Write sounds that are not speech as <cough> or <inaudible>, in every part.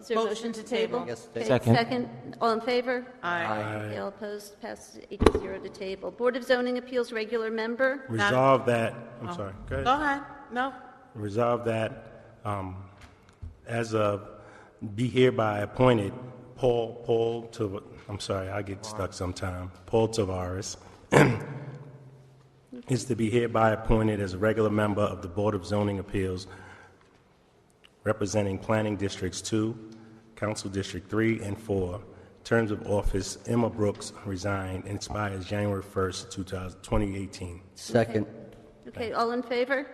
Is there a motion to table? Yes, Okay, Second. Second, all in favor? Aye. All opposed, passes eight to zero to table. Board of Zoning Appeals, regular member, Resolve that, I'm sorry, go ahead. Oh. Go ahead, no, Resolve that, um, as of, be hereby appointed Paul, Paul Tav, I'm sorry, I get stuck sometime, Paul Tavares <clears throat> is to be hereby appointed as a regular member of the Board of Zoning Appeals representing Planning Districts Two, Council District Three and Four. Terms of office, Emma Brooks resigned, and expires January first, two thousand, twenty eighteen. Second. okay, all in favor?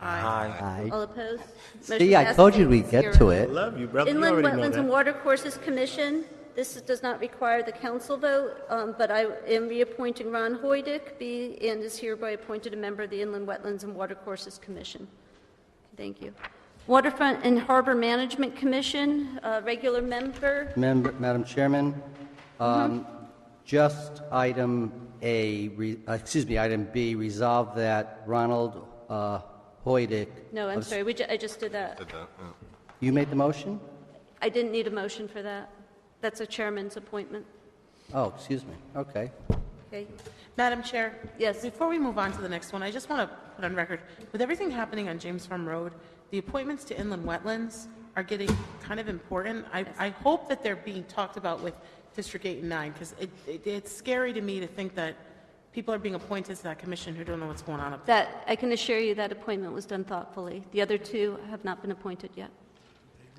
Aye. Aye. All opposed? Motion See, I passes told you eight we'd get to zero. it. Love you, brother, you Inland already know Wetlands and that. Watercourses Commission, this is- does not require the council vote, um, but I am reappointing Ron Hoydick, be and is hereby appointed a member of the Inland Wetlands and Watercourses Commission. Thank you. Waterfront and Harbor Management Commission, uh, regular member, Member- Madam Chairman, um, Mm-hmm. just item A, re- uh, excuse me, item B, resolve that Ronald uh, Hoydick. no, I'm of- sorry, we ju- I just did that. You made the motion? I didn't need a motion for that. That's a chairman's appointment. Oh, excuse me, okay. Okay, Madam Chair? Yes. Before we move on to the next one, I just want to put on record, with everything happening on James Farm Road, the appointments to inland wetlands are getting kind of important. I, I hope that they're being talked about with District 8 and 9, because it, it- it's scary to me to think that people are being appointed to that commission who don't know what's going on up there. That, I can assure you that appointment was done thoughtfully. The other two have not been appointed yet.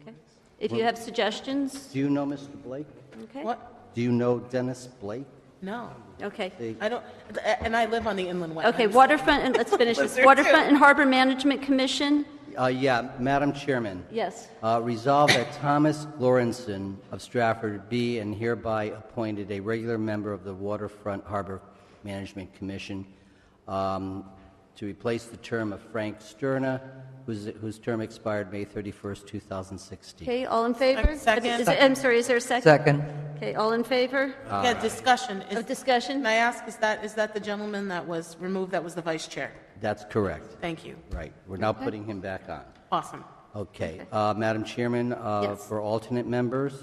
Okay. If you have suggestions, Do you know Mr. Blake? okay? What? Do you know Dennis Blake? No. Okay. I don't, and I live on the inland wetlands. Okay, waterfront, and let's finish this. Lizard too. Waterfront and Harbor Management Commission, Uh, Yeah, Madam Chairman. yes. Uh, Resolve that Thomas Lorenzen of Stratford be and hereby appointed a regular member of the Waterfront Harbor Management Commission um, to replace the term of Frank Sterna, whose whose term expired May 31st, 2016. Okay, all in favor? Second. Is it- I'm sorry, is there a second? Second. Okay, all in favor? Yeah, discussion. Is- Of discussion? Can I ask, is that, is that the gentleman that was removed that was the vice chair? That's correct, Thank you. right. We're now putting him back on. Awesome. Okay, uh, Madam Chairman, uh, Yes. for alternate members,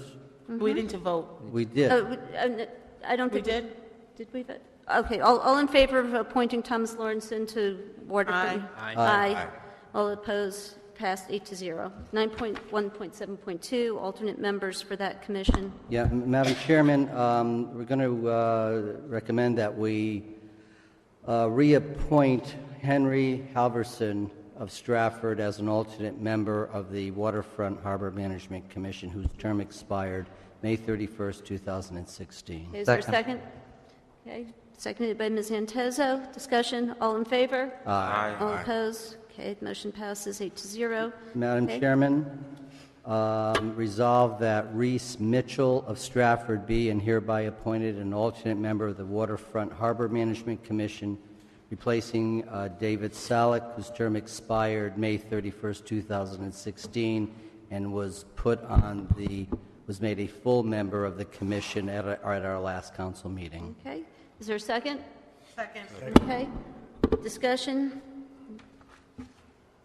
Mm-hmm. We need to vote. we did. Oh, we- uh, n- I don't We think. did? Did we? vote? Okay, all, all in favor of appointing Thomas Lawrenson to Waterfront? Aye. Aye. All opposed, passed eight to zero. 9.1.7.2, alternate members for that commission. Yeah, M- Madam Chairman, um, we're going to recommend that we uh, reappoint Henry Halverson of Stratford as an alternate member of the Waterfront Harbor Management Commission, whose term expired May 31st, 2016. Is there a second? Second. Okay, seconded by Ms. Antezo. Discussion, all in favor? Aye. All opposed? Okay, the motion passes eight to zero. Madam Okay. Chairman, um, resolve that Reese Mitchell of Stratford be and hereby appointed an alternate member of the Waterfront Harbor Management Commission, replacing uh, David Salick, whose term expired May 31st, 2016, and was put on the, was made a full member of the commission at our at our last council meeting. Okay, is there a second? Second. Okay, discussion?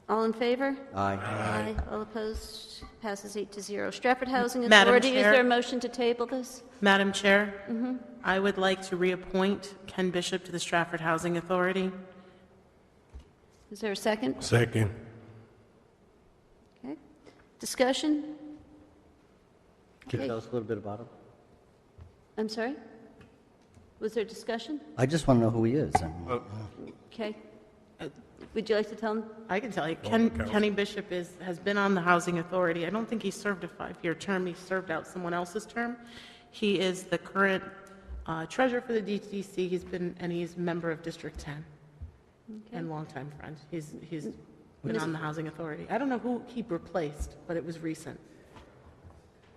All in favor? Aye. Aye. All opposed? Passes eight to zero. Stratford Housing Madam Authority, is Chair. there a motion to table this? Madam Chair, I would like to reappoint Ken Bishop to the Stratford Housing Authority. Is there a second? Second. Okay. Discussion? Could you tell us a little bit about him? I'm sorry? Was there discussion? I just want to know who he is. I mean- Okay. Uh, Would you like to tell them? I can tell you, Ken, Kenny Bishop is, has been on the Housing Authority. I don't think he served a five-year term, he served out someone else's term. He is the current uh, treasurer for the DTC, he's been, and he's a member of District 10, and longtime friend. He's, he's been on the Housing Authority. I don't know who he replaced, but it was recent.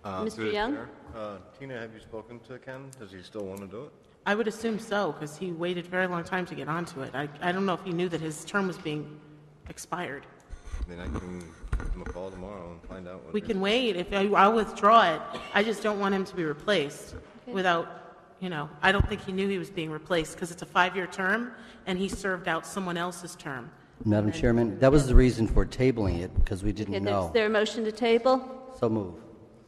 Mr. Through the Young? chair. Uh, Tina, have you spoken to Ken? Does he still want to do it? I would assume so, because he waited a very long time to get onto it. I, I don't know if he knew that his term was being expired. Then I can give him a call tomorrow and find out what. We it is. can wait, if, I- I'll withdraw it, I just don't want him to be replaced without, you know, I don't think he knew he was being replaced, because it's a five-year term, and he served out someone else's term. Madam Chairman, that was the reason for tabling it, because we Okay, didn't there's- know. Is there a motion to table? So moved.